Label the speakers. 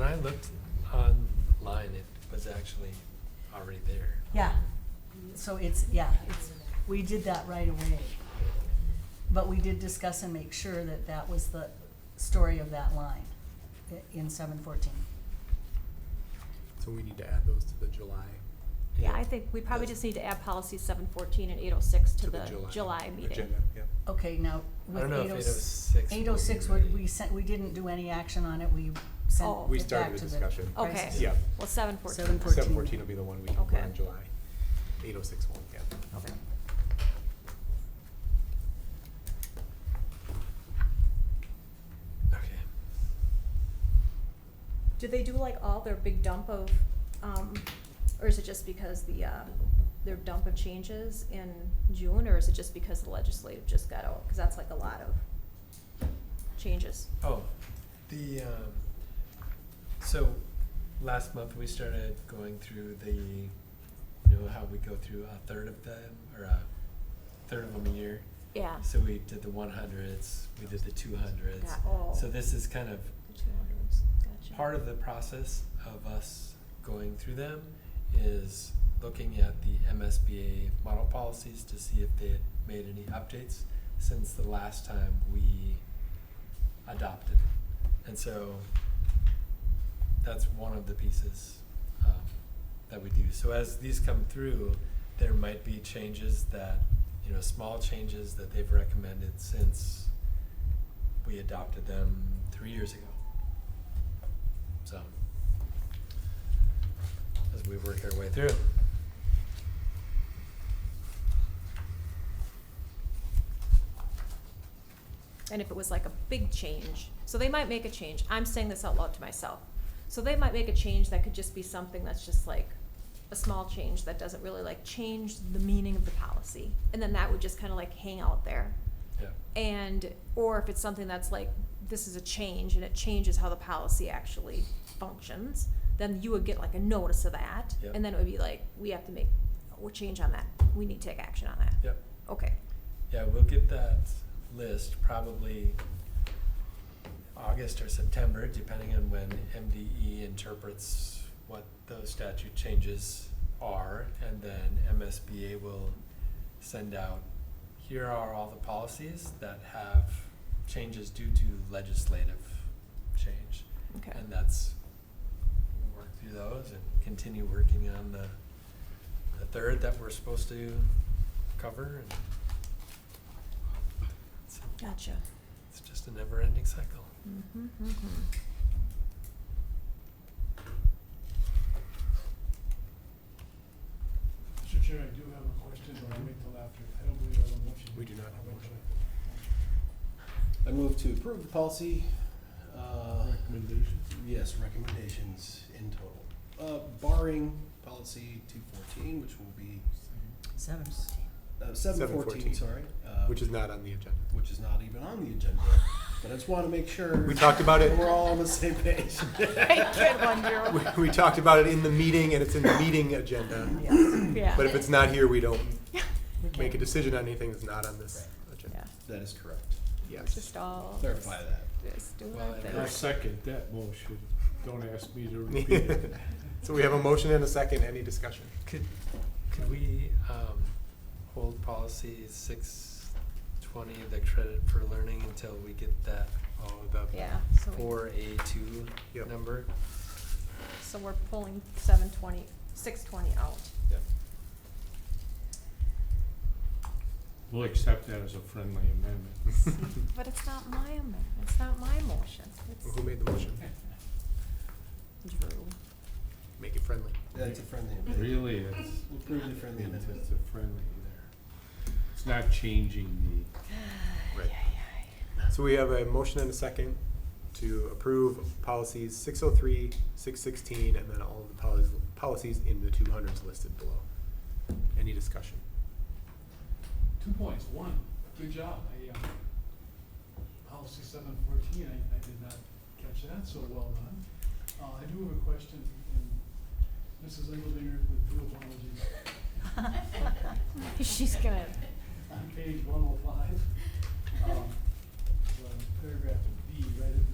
Speaker 1: I looked online, it was actually already there.
Speaker 2: Yeah, so it's, yeah, it's, we did that right away. But we did discuss and make sure that that was the story of that line i- in seven fourteen.
Speaker 3: So we need to add those to the July.
Speaker 4: Yeah, I think we probably just need to add policies seven fourteen and eight oh six to the July meeting.
Speaker 3: Agenda, yeah.
Speaker 2: Okay, now
Speaker 1: I
Speaker 2: with
Speaker 1: don't know if
Speaker 2: eight oh six.
Speaker 1: 806
Speaker 2: Eight oh six,
Speaker 1: would be
Speaker 2: we
Speaker 1: ready.
Speaker 2: sent, we didn't do any action on it, we sent
Speaker 4: Oh.
Speaker 3: We
Speaker 2: it back
Speaker 3: started the
Speaker 2: to the
Speaker 3: discussion.
Speaker 4: Okay.
Speaker 2: crisis.
Speaker 3: Yeah.
Speaker 4: Well, seven fourteen.
Speaker 2: 714.
Speaker 3: Seven fourteen will be the one we,
Speaker 4: Okay.
Speaker 3: we're on July. Eight oh six one, yeah.
Speaker 2: Okay.
Speaker 1: Okay.
Speaker 4: Do they do like all their big dump of, um, or is it just because the, uh, their dump of changes in June, or is it just because the legislative just got out? Cause that's like a lot of changes.
Speaker 1: Oh, the, um, so last month we started going through the, you know, how we go through a third of them, or a third of them a year.
Speaker 4: Yeah.
Speaker 1: So we did the one hundreds, we did the two hundreds.
Speaker 4: Got all.
Speaker 1: So this is kind of
Speaker 4: Two hundreds, gotcha.
Speaker 1: part of the process of us going through them is looking at the MSBA model policies to see if they had made any updates since the last time we adopted. And so that's one of the pieces um, that we do. So as these come through, there might be changes that, you know, small changes that they've recommended since we adopted them three years ago. So, as we work our way through.
Speaker 4: and if it was like a big change, so they might make a change. I'm saying this out loud to myself. So they might make a change that could just be something that's just like a small change that doesn't really like change the meaning of the policy. And then that would just kind of like hang out there.
Speaker 1: Yeah.
Speaker 4: And, or if it's something that's like, this is a change and it changes how the policy actually functions, then you would get like a notice of that.
Speaker 1: Yep.
Speaker 4: And then it would be like, we have to make, we'll change on that. We need to take action on that.
Speaker 1: Yep.
Speaker 4: Okay.
Speaker 1: Yeah, we'll get that list probably August or September, depending on when MDE interprets what those statute changes are. And then MSBA will send out, here are all the policies that have changes due to legislative change.
Speaker 4: Okay.
Speaker 1: And that's, we'll work through those and continue working on the, the third that we're supposed to cover. and It's,
Speaker 4: Gotcha.
Speaker 1: it's just a never-ending cycle.
Speaker 4: Mhm, mhm.
Speaker 5: Mr. Chair, I do have a question, but I'll wait till after. I don't believe I have a motion.
Speaker 3: We do not have a motion.
Speaker 6: I
Speaker 5: I'll wait till
Speaker 6: move to approve the policy, uh,
Speaker 5: after. Recommendation?
Speaker 6: yes, recommendations in total. Uh, barring policy two fourteen, which will be,
Speaker 2: Seven fourteen.
Speaker 6: uh, seven
Speaker 3: 714,
Speaker 6: fourteen, sorry. uh,
Speaker 3: Which is not on the agenda.
Speaker 6: Which is not even on the agenda, but I just wanna make sure.
Speaker 3: We talked about it.
Speaker 6: We're all on the same page.
Speaker 3: We, we talked about it in the meeting and it's in the meeting agenda.
Speaker 4: Yeah.
Speaker 3: But if it's not here, we don't make a decision on anything that's not on this agenda.
Speaker 4: Yeah,
Speaker 6: That is correct.
Speaker 3: Yes.
Speaker 4: just all.
Speaker 6: Clarify that.
Speaker 4: Just do
Speaker 1: Well,
Speaker 4: our
Speaker 1: and
Speaker 4: thing.
Speaker 1: I
Speaker 5: I second that motion. Don't ask me to repeat it.
Speaker 3: So we have a motion and a second. Any discussion?
Speaker 1: Could, could we, um, hold policy six twenty, the credit for learning, until we get that
Speaker 3: Oh, the,
Speaker 4: Yeah, so we,
Speaker 1: four A two
Speaker 3: Yep.
Speaker 1: number?
Speaker 4: so we're pulling seven twenty, six twenty out.
Speaker 6: Yep.
Speaker 5: We'll accept that as a friendly amendment.
Speaker 4: But it's not my amendment, it's not my motion, it's
Speaker 3: who made the motion?
Speaker 4: Drew.
Speaker 3: Make it friendly.
Speaker 6: That's a friendly amendment.
Speaker 5: Really, it's,
Speaker 6: We'll prove the friendly
Speaker 5: it's
Speaker 6: amendment.
Speaker 5: it's a friendly there. It's not changing
Speaker 3: Right. So we have a motion and a second to approve policies 603, 616, and then all of the policies, policies in the 200s listed below. Any discussion?
Speaker 5: the. Two points. One, good job. I, uh, policy seven fourteen, I, I did not catch that, so well done. Uh, I do have a question, and Mrs. Engeldinger with due apologies.
Speaker 4: She's gonna,
Speaker 5: on page one oh five, um, the paragraph B, right at